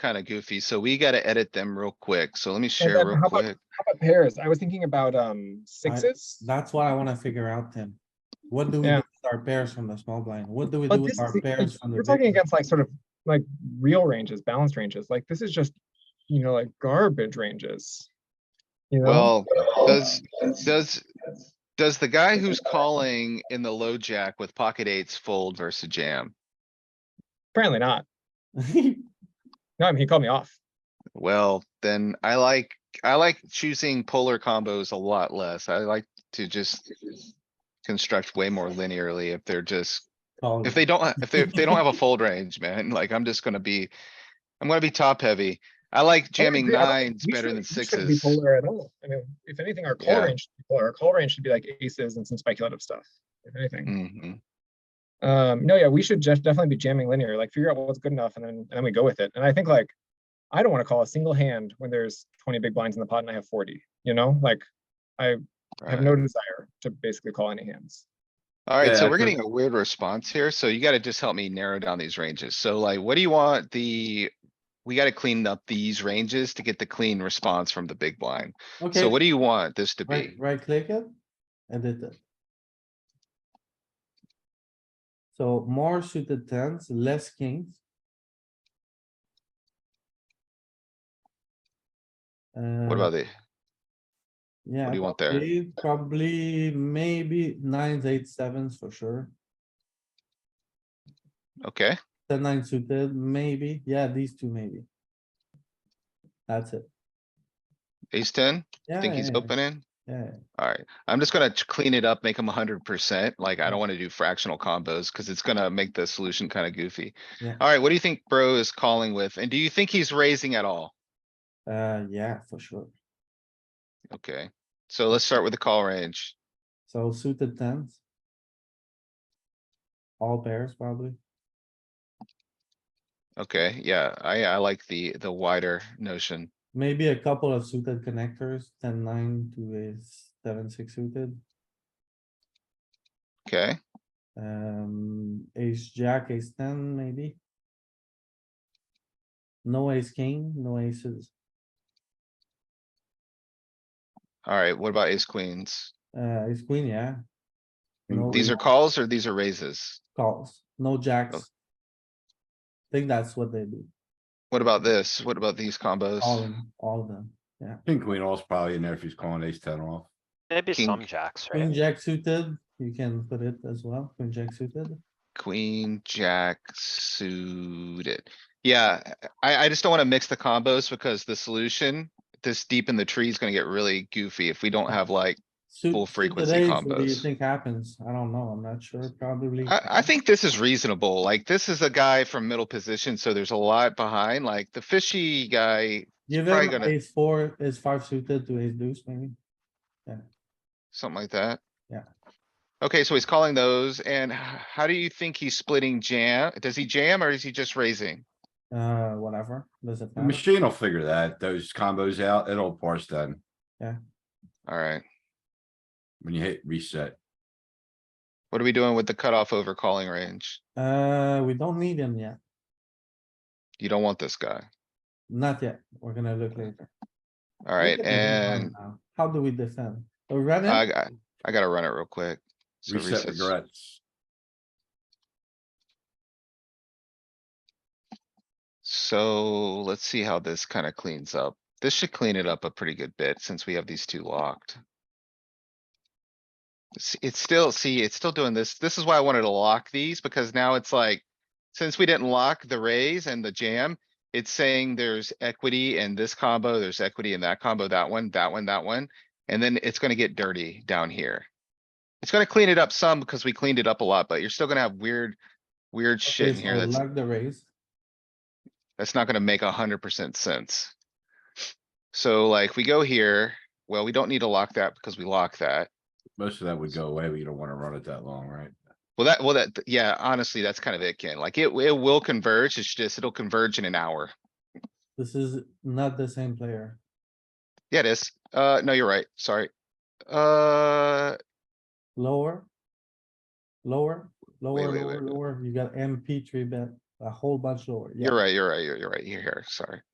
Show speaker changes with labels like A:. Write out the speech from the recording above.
A: kinda goofy, so we gotta edit them real quick. So let me share
B: then
A: real
B: how about-
A: quick.
B: How about pairs? I was thinking about um sixes.
C: That's what I wanna figure out, Tim. What do we do
B: Yeah.
C: with our pairs from the small blind? What do we do
B: But this
C: with
B: is,
C: our
B: the-
C: pairs
B: like,
C: from the?
B: we're
C: big
B: talking
C: blind?
B: against like sort of like real ranges, balanced ranges. Like this is just, you know, like garbage ranges. You know,
A: Well, does, does, does the guy who's calling in the low jack with pocket eights fold versus jam?
B: apparently not. No, I mean, he called me off.
A: Well, then I like, I like choosing polar combos a lot less. I like to just construct way more linearly if they're just,
C: Call
A: if
C: it.
A: they don't, ha- if they, if they don't have a fold range, man, like I'm just gonna be, I'm gonna be top heavy. I like jamming
B: agree. I don't-
A: nines
B: We
A: better than
B: shouldn't- we shouldn't be
A: sixes.
B: Polar at all. I mean, if anything, our call
A: Yeah.
B: range, should be polar. our call range should be like aces and some speculative stuff, if anything.
A: Mhm.
B: Um, no, yeah, we should just definitely be jamming linear, like figure out what's good enough and then, and then we go with it. And I think like, I don't wanna call a single hand when there's twenty big blinds in the pot and I have forty, you know, like, I have
A: Right.
B: no desire to basically call any hands.
A: Alright, so
D: Yeah,
A: we're
D: so-
A: getting a weird response here, so you gotta just help me narrow down these ranges. So like, what do you want the? We gotta clean up these ranges to get the clean response from the big blind.
C: Okay,
A: So what do you want this to
C: right,
A: be?
C: right click it. Edit it. uh, So more suited tens, less kings.
A: What about the,
C: Uh, Yeah.
A: do you want there?
C: probably- Probably, maybe nines, eight, sevens for sure.
A: okay,
C: Ten, nine suited, maybe. Yeah, these two maybe. That's it.
A: ace ten,
C: Yeah.
A: think he's
C: yeah,
A: opening?
C: Yeah,
A: Alright, I'm just gonna ch- clean it up, make him hundred percent, like
C: Hmm.
A: I don't wanna do fractional combos, cuz it's gonna make the solution kinda goofy.
C: Yeah.
A: Alright, what do you think bro is calling with? And do you think he's raising at all?
C: uh, yeah, for sure.
A: Okay, so let's start with the call range.
C: So suited tens. All pairs probably.
A: Okay, yeah, I, I like the, the wider notion.
C: Maybe a couple of suited connectors, ten, nine to a seven, six suited.
A: Okay,
C: Um, ace, jack, ace ten, maybe. No ace king, no aces.
A: alright, what about ace queens?
C: Uh, ace queen, yeah. No
A: These are calls or these are raises?
C: Calls, no jacks. Think that's what they do,
A: What about this? What about these combos?
C: all, of 'em, all of them.
D: King queen off's probably in there if he's calling ace ten off.
E: Maybe
A: King-
E: some jacks,
C: Queen
E: right?
C: jack suited, you can put it as well, queen jack suited.
A: Queen, jack suited. Yeah, I, I just don't wanna mix the combos because the solution, this deep in the tree is gonna get really goofy if we don't have like,
C: Suit-
A: Full
C: suit
A: frequency
C: today, so What do you
A: combos.
C: think happens? I don't know, I'm not sure, probably.
A: I, I think this is reasonable. Like, this is a guy from middle position, so there's a lot behind, like the fishy guy,
C: Give
A: probably
C: him
A: gonna-
C: ace four, ace five suited to ace deuce maybe.
A: Something like that?
C: Yeah.
A: Okay, so he's calling those and h- how do you think he's splitting jam? Does he jam or is he just raising?
C: Uh, whatever, doesn't
D: The
C: matter.
D: machine will figure that, those combos out, it'll parse them
A: Alright,
D: when you hit reset.
A: what are we doing with the cutoff over calling range?
C: Uh, we don't need him yet,
A: You don't want this guy.
C: not yet, we're gonna look later. Look
A: Alright,
C: at the big blind
A: and
C: now. How do we defend? We run
A: I,
C: it,
A: got- I gotta run it real quick. So
D: Reset
A: resets.
D: regrets.
A: So let's see how this kinda cleans up. This should clean it up a pretty good bit since we have these two locked. S- It's still, see, it's still doing this. This is why I wanted to lock these because now it's like, since we didn't lock the raise and the jam, it's saying there's equity in this combo, there's equity in that combo, that one, that one, that one. And then it's gonna get dirty down here. It's gonna clean it up some because we cleaned it up a lot, but you're still gonna have weird, weird shit
C: Okay,
A: in here
C: so
A: that's
C: lock the raise,
A: that's not gonna make a hundred percent sense. So like we go here, well, we don't need to lock that because we lock that.
D: Most of that would go away, but you don't wanna run it that long, right?
A: Well, that, well, that, yeah, honestly, that's kind of it, Ken. Like it, it will converge. It's just, it'll converge in an hour.
C: this is not the same player.
A: Yeah, it is. Uh, no, you're right. Sorry. Uh,
C: Lower. Lower, lower,
A: wait,
C: lower,
A: wait.
C: lower. You got MP three bet. a whole bunch lower. yeah.
A: You're right, you're right, you're, you're right, you're here, sorry.